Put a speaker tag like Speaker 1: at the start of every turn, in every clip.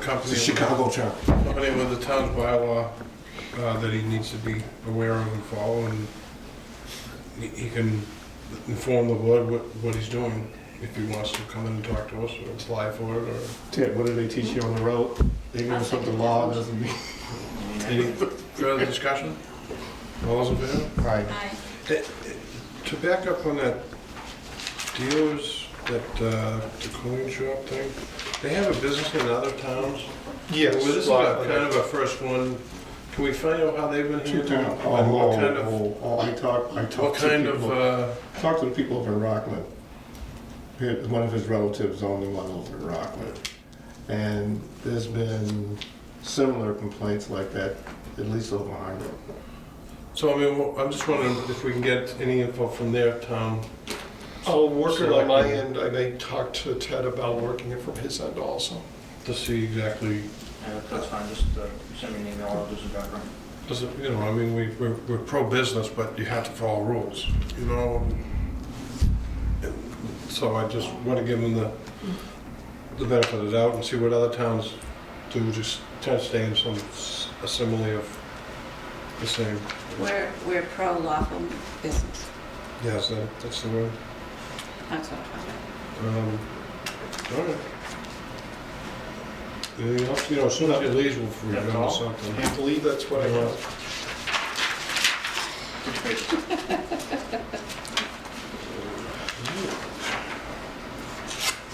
Speaker 1: company,
Speaker 2: The Chicago term.
Speaker 1: company with the town's bylaw uh, that he needs to be aware of and follow, and he- he can inform the board what, what he's doing, if he wants to come in and talk to us, or apply for it, or
Speaker 2: Ted, what do they teach you on the road? They give us what the law doesn't mean.
Speaker 1: any further discussion? All those in favor?
Speaker 2: All right,
Speaker 3: Aye.
Speaker 1: To back up on that dealers, that uh, the coin shop thing, they have a business in other towns.
Speaker 2: yes.
Speaker 1: Well, this is
Speaker 2: lot
Speaker 1: our-
Speaker 2: of-
Speaker 1: kind of our first one. Can we find out how they've been
Speaker 2: Two
Speaker 1: handling
Speaker 2: town-
Speaker 1: it?
Speaker 2: Oh,
Speaker 1: What what kind of,
Speaker 2: oh, oh, I talk, I talk
Speaker 1: what
Speaker 2: to
Speaker 1: kind of,
Speaker 2: people,
Speaker 1: uh,
Speaker 2: talk to the people over in Rockland. His- One of his relatives owned the one over in Rockland. And there's been similar complaints like that, at least over in Harvard.
Speaker 1: so I mean, well, I'm just wondering if we can get any info from their town.
Speaker 4: I'll work it on
Speaker 1: Select
Speaker 4: my
Speaker 1: me.
Speaker 4: end, I may talk to Ted about working it from his end also.
Speaker 1: to see exactly,
Speaker 5: Yeah, that's fine, just uh, send me an email, I'll do some background.
Speaker 1: does it, you know, I mean, we, we're, we're pro-business, but you have to follow rules, you know? So I just want to give them the, the benefit of the doubt and see what other towns do, just try to stay in some s- a simile of the same.
Speaker 3: We're, we're pro lawful business.
Speaker 1: Yes, that, that's the word.
Speaker 3: That's what I'm
Speaker 1: Um, all right. Anything else? You know, as soon as it leaves, we'll
Speaker 5: That's
Speaker 1: remember
Speaker 5: all.
Speaker 1: something.
Speaker 4: I believe that's what I have.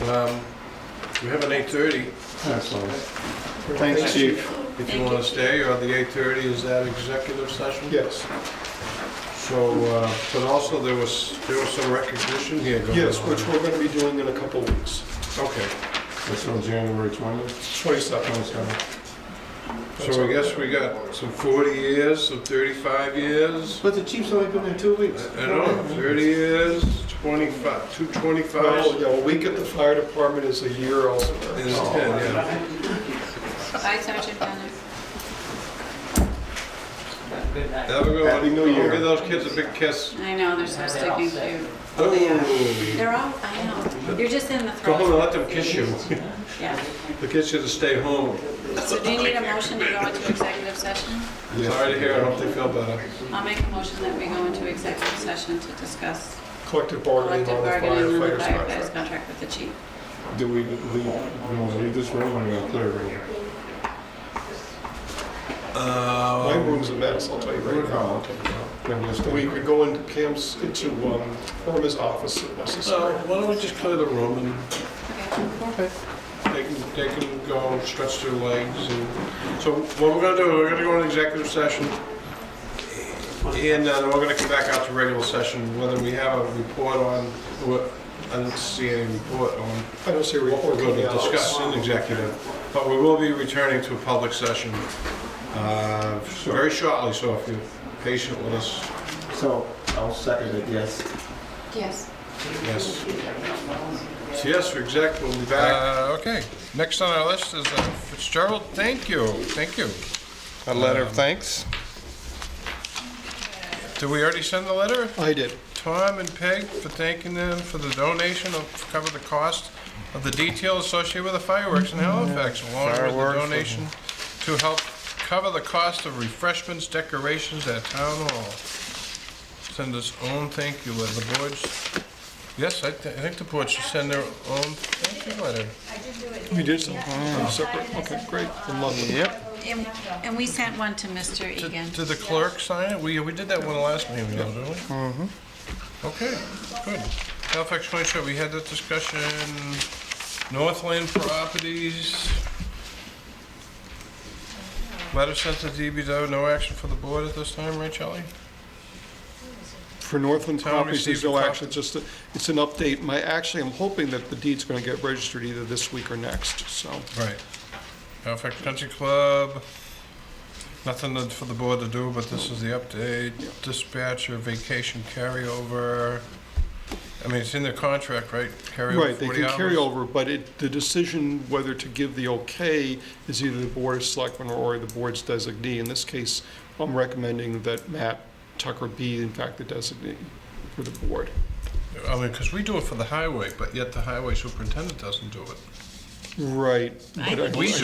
Speaker 1: Um, we have an eight thirty,
Speaker 2: That's all. Thanks, chief.
Speaker 1: if you
Speaker 3: Thank
Speaker 1: wanna
Speaker 3: you.
Speaker 1: stay, or the eight thirty, is that executive session?
Speaker 4: Yes,
Speaker 1: So, uh, but also there was, there was some recognition here going on.
Speaker 4: yes, which we're gonna be doing in a couple weeks,
Speaker 1: Okay,
Speaker 2: That's on January 20th.
Speaker 4: twenty-seven.
Speaker 2: 27th.
Speaker 1: so I guess we got some forty years, some thirty-five years.
Speaker 2: But the chief's only been there two weeks.
Speaker 1: I don't know, thirty years, twenty-five, two
Speaker 4: Well,
Speaker 1: twenty-five
Speaker 4: Uh, oh, yeah, a week at the fire department is a year also.
Speaker 1: is ten, yeah.
Speaker 3: talking about. Bye, Sergeant Bennett.
Speaker 1: Have a good one.
Speaker 2: Happy New Year.
Speaker 1: Give those kids a big kiss.
Speaker 3: I know, they're so sticky cute.
Speaker 1: Oh,
Speaker 3: They're all, I know, you're just in the
Speaker 1: Go home and
Speaker 3: throes.
Speaker 1: let them kiss you.
Speaker 3: Yeah.
Speaker 1: The kids should stay home.
Speaker 3: So do you need a motion to go into executive session?
Speaker 2: Yes.
Speaker 1: Sorry to hear, I hope they feel better.
Speaker 3: I'll make a motion that we go into executive session to discuss
Speaker 4: Collective bargaining
Speaker 3: collective
Speaker 4: on the
Speaker 3: bargaining and the
Speaker 4: firefighter's
Speaker 3: firefighter's
Speaker 4: contract.
Speaker 3: contract with the chief.
Speaker 2: Do we leave, we wanna leave this room or we gonna clear a room?
Speaker 4: My
Speaker 1: Um,
Speaker 4: room's a mess, I'll tell you right now.
Speaker 2: Then we'll stay.
Speaker 4: We could go into Cam's, into, um, Irma's office if
Speaker 1: So
Speaker 4: necessary.
Speaker 1: why don't we just clear the room and
Speaker 3: Okay.
Speaker 1: they can, they can go stretch their legs and, so what we're gonna do, we're gonna go into executive session. And then we're gonna come back out to regular session, whether we have a report on, what- I didn't see any report on
Speaker 4: I don't see a
Speaker 1: what we're
Speaker 4: report
Speaker 1: going
Speaker 4: coming
Speaker 1: to
Speaker 4: out.
Speaker 1: discuss in executive, but we will be returning to a public session uh, very shortly, so if you're patient with us,
Speaker 2: So, I'll second it, yes.
Speaker 3: Yes.
Speaker 1: yes. So yes, for exec, we'll be back. Uh, Okay, next on our list is uh, Fitzgerald, thank you, thank you. Um,
Speaker 2: A letter of thanks?
Speaker 1: Did we already send the letter?
Speaker 4: I did.
Speaker 1: Tom and Peg for thanking them for the donation of, cover the cost of the detail associated with the fireworks in Halifax, along with the donation to help cover the cost of refreshments, decorations at Town Hall. Send us own thank you letter, the boards, yes, I thi- I think the board should send their own thank you letter.
Speaker 4: You did something separate? Okay, great, I'm loving it.
Speaker 3: And and we sent one to Mr.
Speaker 1: Did
Speaker 3: Egan.
Speaker 1: did the clerk sign it? We, we did that one last meeting, didn't we? Mm-hmm. Okay, good. Halifax County Sheriff, we had that discussion. Northland Properties. Letter sent to DBW, no action for the board at this time, right, Charlie?
Speaker 4: For Northland
Speaker 1: Town
Speaker 4: Properties, there's no
Speaker 1: received a
Speaker 4: action, it's just, a- it's an update. My, actually, I'm hoping that the deed's gonna get registered either this week or next, so.
Speaker 1: Right. Halifax Country Club, nothing that- for the board to do, but this is the update. Dispatcher vacation carryover. I mean, it's in their contract, right? Carryover
Speaker 4: Right, they
Speaker 1: 40
Speaker 4: can
Speaker 1: hours?
Speaker 4: carry over, but it, the decision whether to give the okay is either the board of selectmen or the board's designee. In this case, I'm recommending that Matt Tucker be in fact the designee for the board.
Speaker 1: I mean, because we do it for the highway, but yet the highway superintendent doesn't do it.
Speaker 4: Right.
Speaker 3: I
Speaker 4: but
Speaker 1: We